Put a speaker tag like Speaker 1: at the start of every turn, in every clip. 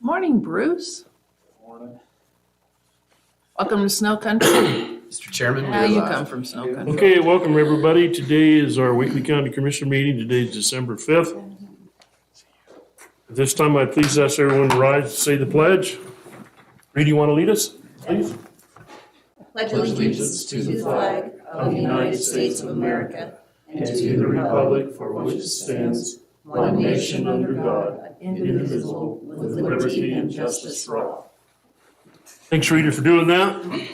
Speaker 1: Morning, Bruce.
Speaker 2: Morning.
Speaker 1: Welcome to Snow Country.
Speaker 3: Mr. Chairman,
Speaker 1: Now
Speaker 3: we'll,
Speaker 1: you
Speaker 3: uh,
Speaker 1: come from Snow Country.
Speaker 4: Okay, welcome everybody. Today is our weekly county commission meeting. Today is December fifth. At this time, I please ask everyone to rise and say the pledge. Reed, you want to lead us, please?
Speaker 5: pledge allegiance to the flag of the United States of America and to the republic
Speaker 4: for which it stands,
Speaker 5: one nation under God, indivisible, with liberty and justice for all.
Speaker 4: Thanks, Rita, for doing that.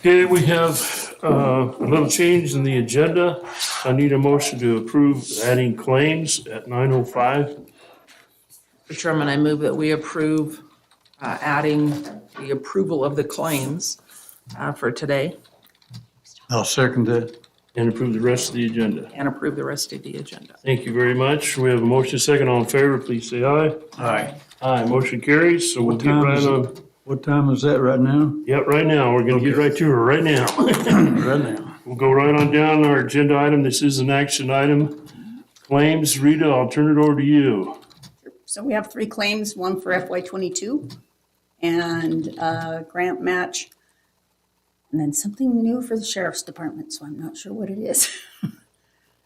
Speaker 4: Okay, we have uh, a little change in the agenda. I need a motion to approve adding claims at 9:05.
Speaker 1: Mr. Chairman, I move that we approve uh, adding the approval of the claims uh, for today
Speaker 6: I'll second it.
Speaker 4: and approve the rest of the agenda.
Speaker 1: and approve the rest of the agenda.
Speaker 4: Thank you very much. We have a motion second. All in favor, please say aye.
Speaker 3: Aye.
Speaker 4: Aye, motion carries. So we'll
Speaker 6: What
Speaker 4: get
Speaker 6: time
Speaker 4: right
Speaker 6: is it?
Speaker 4: on,
Speaker 6: What time is that right now?
Speaker 4: yep, right now. We're gonna get right to her right now.
Speaker 6: Right now.
Speaker 4: We'll go right on down our agenda item. This is an action item. Claims, Rita, I'll turn it over to you.
Speaker 5: So we have three claims, one for FY twenty-two and a grant match. And then something new for the sheriff's department, so I'm not sure what it is.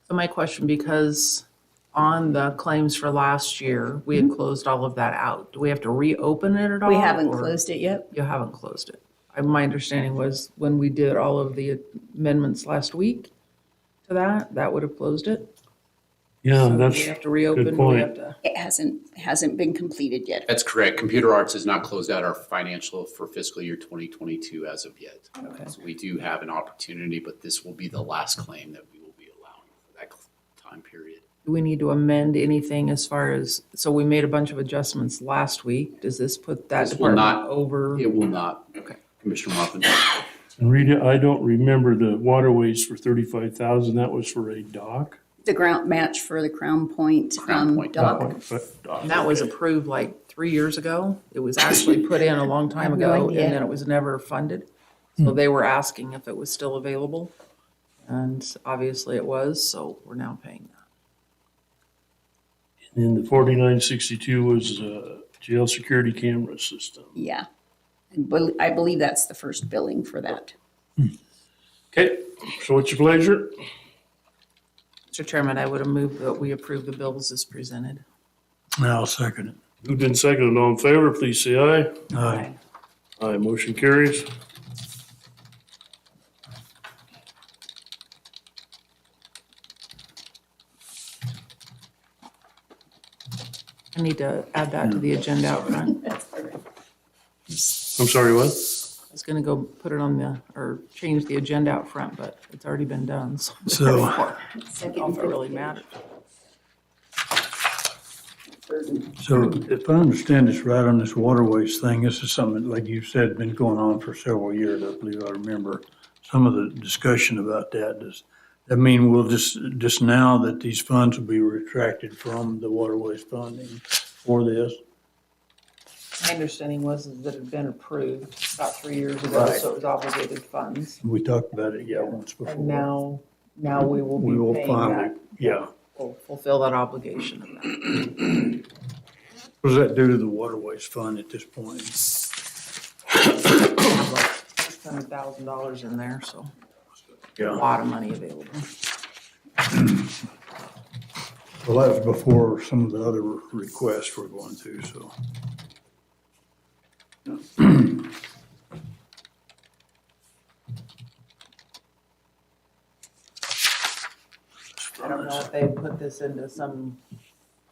Speaker 1: So my question, because on the claims for last year, we had closed all of that out. Do we have to reopen it at all?
Speaker 5: Mm-hmm. We haven't
Speaker 1: or-
Speaker 5: closed it yet.
Speaker 1: You haven't closed it. I- My understanding was when we did all of the amendments last week to that, that would have closed it.
Speaker 4: Yeah,
Speaker 1: So do
Speaker 4: that's,
Speaker 1: We have to reopen, do we
Speaker 4: point.
Speaker 1: have to.
Speaker 5: It hasn't, hasn't been completed yet.
Speaker 3: That's correct. Computer Arts has not closed out our financial for fiscal year 2022 as of yet. So we do have an opportunity, but this will be the last claim that we will be allowing for that time period.
Speaker 1: Do we need to amend anything as far as, so we made a bunch of adjustments last week. Does this put that
Speaker 3: This will not-
Speaker 1: department over?
Speaker 3: It will not.
Speaker 1: Okay.
Speaker 3: Commissioner Mopin.
Speaker 4: and Rita, I don't remember the waterways for thirty-five thousand. That was for a dock.
Speaker 5: The grant match for the Crown Point,
Speaker 3: Crown
Speaker 5: um,
Speaker 3: Point.
Speaker 5: dock.
Speaker 1: And that was approved like three years ago. It was actually put in a long time
Speaker 5: I have
Speaker 1: ago
Speaker 5: no
Speaker 1: and
Speaker 5: idea. Hmm.
Speaker 1: then it was never funded. So they were asking if it was still available. And obviously it was, so we're now paying that.
Speaker 4: And the forty-nine sixty-two was uh, jail security camera system.
Speaker 5: Yeah. And bel- I believe that's the first billing for that.
Speaker 4: Okay, so what's your pleasure?
Speaker 1: Mr. Chairman, I would have moved that we approve the bills as presented.
Speaker 6: I'll second it.
Speaker 4: Moved and seconded. All in favor, please say aye.
Speaker 6: Aye.
Speaker 4: Aye, motion carries.
Speaker 1: I need to add that to the agenda out front.
Speaker 4: I'm sorry, what?
Speaker 1: I was gonna go put it on the, or change the agenda out front, but it's already been done, so.
Speaker 6: So-
Speaker 1: therefore, I don't
Speaker 5: Second
Speaker 1: know
Speaker 5: and
Speaker 1: if it really
Speaker 5: fifth
Speaker 1: matters.
Speaker 6: So if I understand this right on this waterways thing, this is something, like you said, been going on for several years, I believe I remember some of the discussion about that. Does that mean we'll just, just now that these funds will be retracted from the waterways funding for this?
Speaker 1: My understanding was is that it had been approved about three years ago, so it was obligated funds.
Speaker 6: We talked about it, yeah, once before.
Speaker 1: And now, now we will
Speaker 6: We will
Speaker 1: be paying
Speaker 6: finally,
Speaker 1: that,
Speaker 6: yeah.
Speaker 1: will fulfill that obligation of that.
Speaker 6: What does that do to the waterways fund at this point?
Speaker 1: Six hundred thousand dollars in there, so a
Speaker 6: Yeah.
Speaker 1: lot of money available.
Speaker 6: Well, that was before some of the other requests we're going through, so.
Speaker 1: I don't know if they put this into some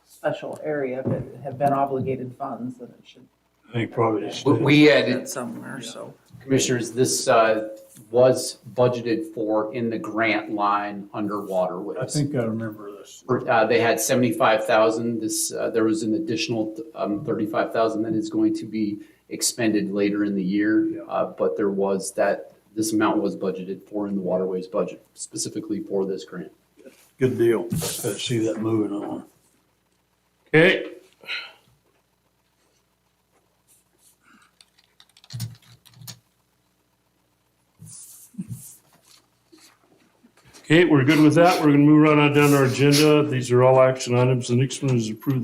Speaker 1: special area, but have been obligated funds, then it should
Speaker 6: I think probably just.
Speaker 3: We added
Speaker 1: fit somewhere, so.
Speaker 3: Commissioners, this uh, was budgeted for in the grant line under waterways.
Speaker 6: I think I remember this.
Speaker 3: Uh, They had 75,000. This, uh, there was an additional um, 35,000 that is going to be expended later in the
Speaker 6: Yeah.
Speaker 3: year. Uh, But there was that, this amount was budgeted for in the waterways budget specifically for this grant.
Speaker 6: Good deal. Let's see that moving on.
Speaker 4: Okay. Okay, we're good with that. We're gonna move right on down to our agenda. These are all action items. The next one is approve the